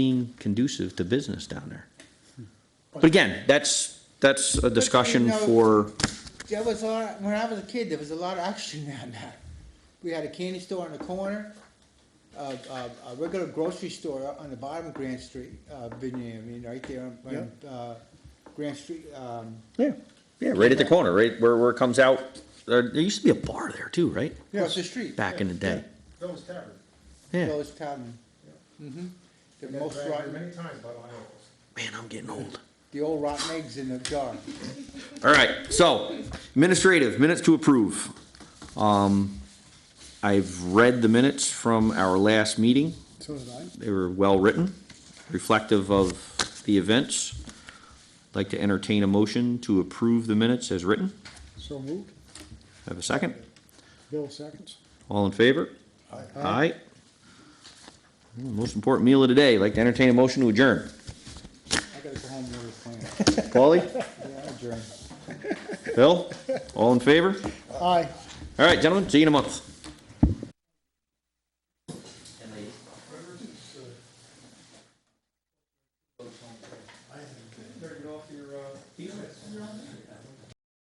being conducive to business down there. But again, that's, that's a discussion know- for, There was a lot, when I was a kid, there was a lot of action down there. We had a candy store on the corner, a, a, a regular grocery store on the bottom of Grand Street, uh, Virginia, I mean, right there on, on, uh, Grand Street, um, yeah, yeah, right at the corner, right where, where it comes out. There, there used to be a bar there too, right? across the street. Back in the day, Those tavern. yeah. Those town, mm-hmm, the Been most dragged rotten, many times by my elbows. Man, I'm getting old. the old rotten eggs in the jar. All right, so administrative, minutes to approve. Um, I've read the minutes from our last meeting. So did I. They were well-written, reflective of the events. Like to entertain a motion to approve the minutes as written. So moved. Have a second? Bill seconds. All in favor? Aye. Most important meal of the day, like to entertain a motion to adjourn. I gotta go home and order a plan. Paulie? Yeah, I adjourn. Bill? All in favor? Aye. All right, gentlemen, see you in a month.